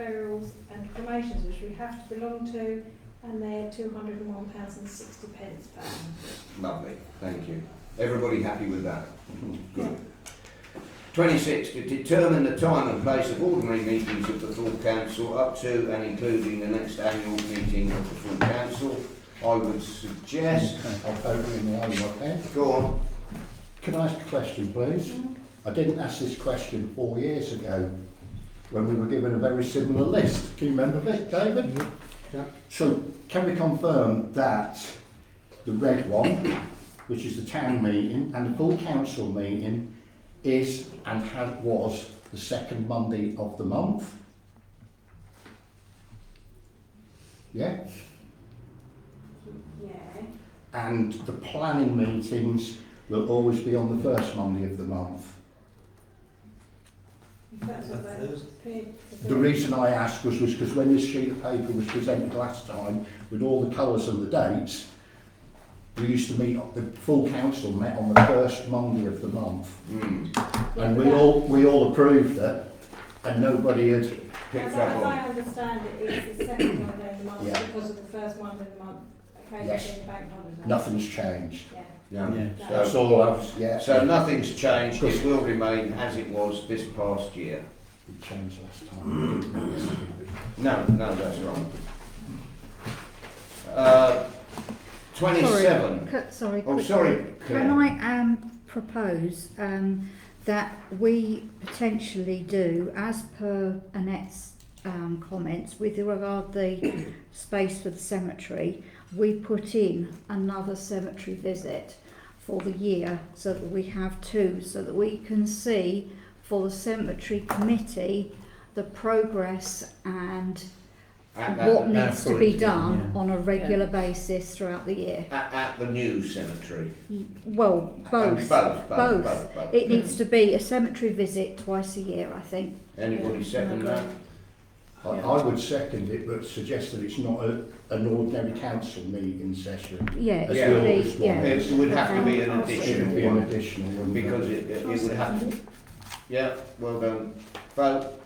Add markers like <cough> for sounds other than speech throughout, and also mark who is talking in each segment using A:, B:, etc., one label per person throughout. A: burials and cremations, which we have to belong to, and they're two hundred and one pounds and sixty pence per annum.
B: Lovely, thank you. Everybody happy with that?
C: Mm-hmm.
B: Good. Twenty-six, to determine the time and place of ordinary meetings of the full council up to and including the next annual meeting of the full council. I would suggest,
C: I'll phone in the eye, okay?
B: go on,
C: Can I ask a question, please? I didn't ask this question four years ago when we were given a very similar list. Can you remember this, David?
B: Yeah.
C: So can we confirm that the red one, which is the town meeting and the full council meeting, is and had was the second Monday of the month? Yeah?
A: Yeah,
C: And the planning meetings will always be on the first Monday of the month.
A: if that's what they.
C: The reason I asked was because when this sheet of paper was presented last time with all the colours and the dates, we used to meet, the full council met on the first Monday of the month.
B: hmm,
C: And we all, we all approved it and nobody had,
B: picked
A: As I,
B: up
A: as I
B: on.
A: understand it, it's the second Monday of the month
C: Yeah.
A: because of the first Monday of the month,
C: Yes.
A: occasionally bank holiday.
C: nothing's changed.
A: Yeah.
B: Yeah.
C: That's all I was, yeah.
B: So nothing's changed, it will remain as it was this past year.
C: It changed last time.
B: No, no, that's wrong. Uh, twenty-seven,
D: Sorry, c- sorry.
B: oh,
D: could-
B: sorry,
D: Can
B: Claire.
D: I um, propose um, that we potentially do, as per Annette's um, comments, with regard the <coughs> space for the cemetery, we put in another cemetery visit for the year so that we have two, so that we can see for the cemetery committee the progress and
B: At that-
D: what needs to be
B: that-
D: done on a regular basis throughout the year.
B: At, at the new cemetery.
D: Well,
B: And
D: Oh,
B: Both,
D: both.
B: both,
D: Both.
B: both, both.
D: It needs to be a cemetery visit twice a year, I think.
B: Anybody second that?
C: I, I would second it, but suggest that it's not a, an ordinary council meeting session.
D: Yeah,
C: As
B: Yeah.
D: it
C: always
D: should be, yeah.
B: It would have to be an
C: It should
B: additional
C: be an
B: one,
C: additional one.
B: because it, it would have to, yeah, well done. Vote,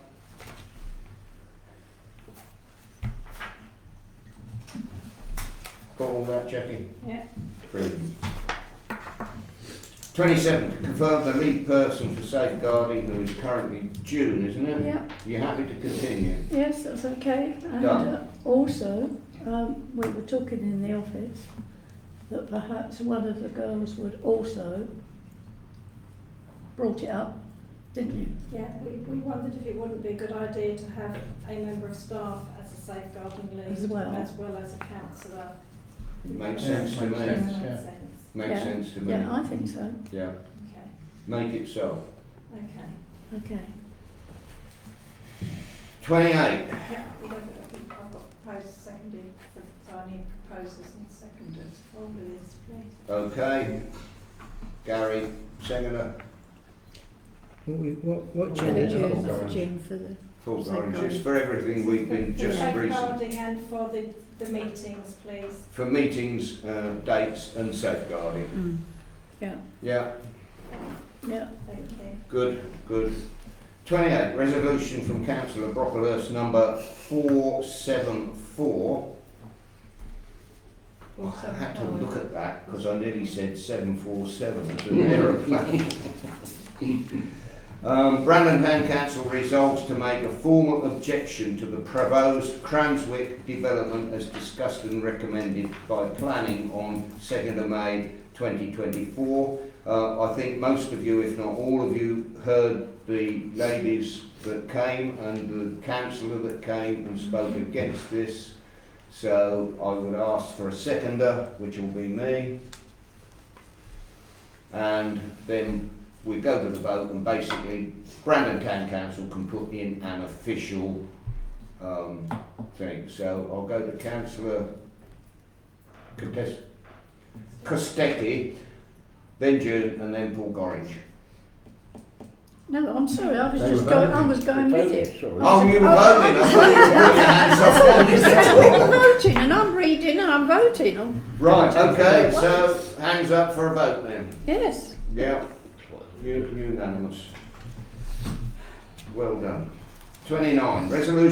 B: got all that, Jackie?
A: Yeah.
B: Brilliant. Twenty-seven, to confirm the lead person for safeguarding who is currently June, isn't it?
E: Yeah,
B: You happy to continue?
E: yes, that's okay. And
B: Done.
E: uh, also, um, we were talking in the office that perhaps one of the girls would also brought it up, didn't you?
A: Yeah, we, we wondered if it wouldn't be a good idea to have a member of staff as a safeguarding lead
E: As well.
A: as well as a councillor.
B: Makes sense to me,
C: Yeah.
A: Doesn't make sense.
B: makes
E: Yeah.
B: sense to me,
E: Yeah, I think so.
B: yeah,
A: Okay,
B: make it so.
A: okay.
E: Okay.
B: 28.
A: Yeah, we don't- I've got proposed seconded, so I need proposers and seconders. All of this, please.
B: Okay. Gary, seconder,
F: What, what
D: For the June,
F: changes?
D: for June, for the,
B: full
D: Second.
B: oranges for everything we've been just recent.
A: Safeguarding and for the, the meetings, please.
B: For meetings, uh, dates and safeguarding.
D: mm.
E: Yeah,
B: Yeah,
E: yeah.
A: Thank you.
B: good, good. 28. Resolution from councillor Brocklehurst number 474. Oh, I had to look at that because I nearly said 747 as an aeroplane. Um, Brandon Town Council resolves to make a formal objection to the proposed Cranswick development as discussed and recommended by planning on 2nd of May 2024. Uh, I think most of you, if not all of you, heard the ladies that came and the councillor that came and spoke against this. So I would ask for a seconder, which will be me. And then we go to the vote and basically Brandon Town Council can put in an official um, thing. So I'll go to councillor Contest- Costecchi, then June and then Paul Gorringe.
E: No, I'm sorry, I was
C: They
E: just
C: were
E: going, I
C: voting.
E: was going with it.
B: Oh, you were voting, I thought you were putting your hands up on this.
E: <laughs> I'm voting and I'm reading and I'm voting. Oh, I'm-
B: Right, okay, so hands up for a vote then.
E: Yes.
B: Yeah, u- unanimous. Well done. Twenty-nine, resolution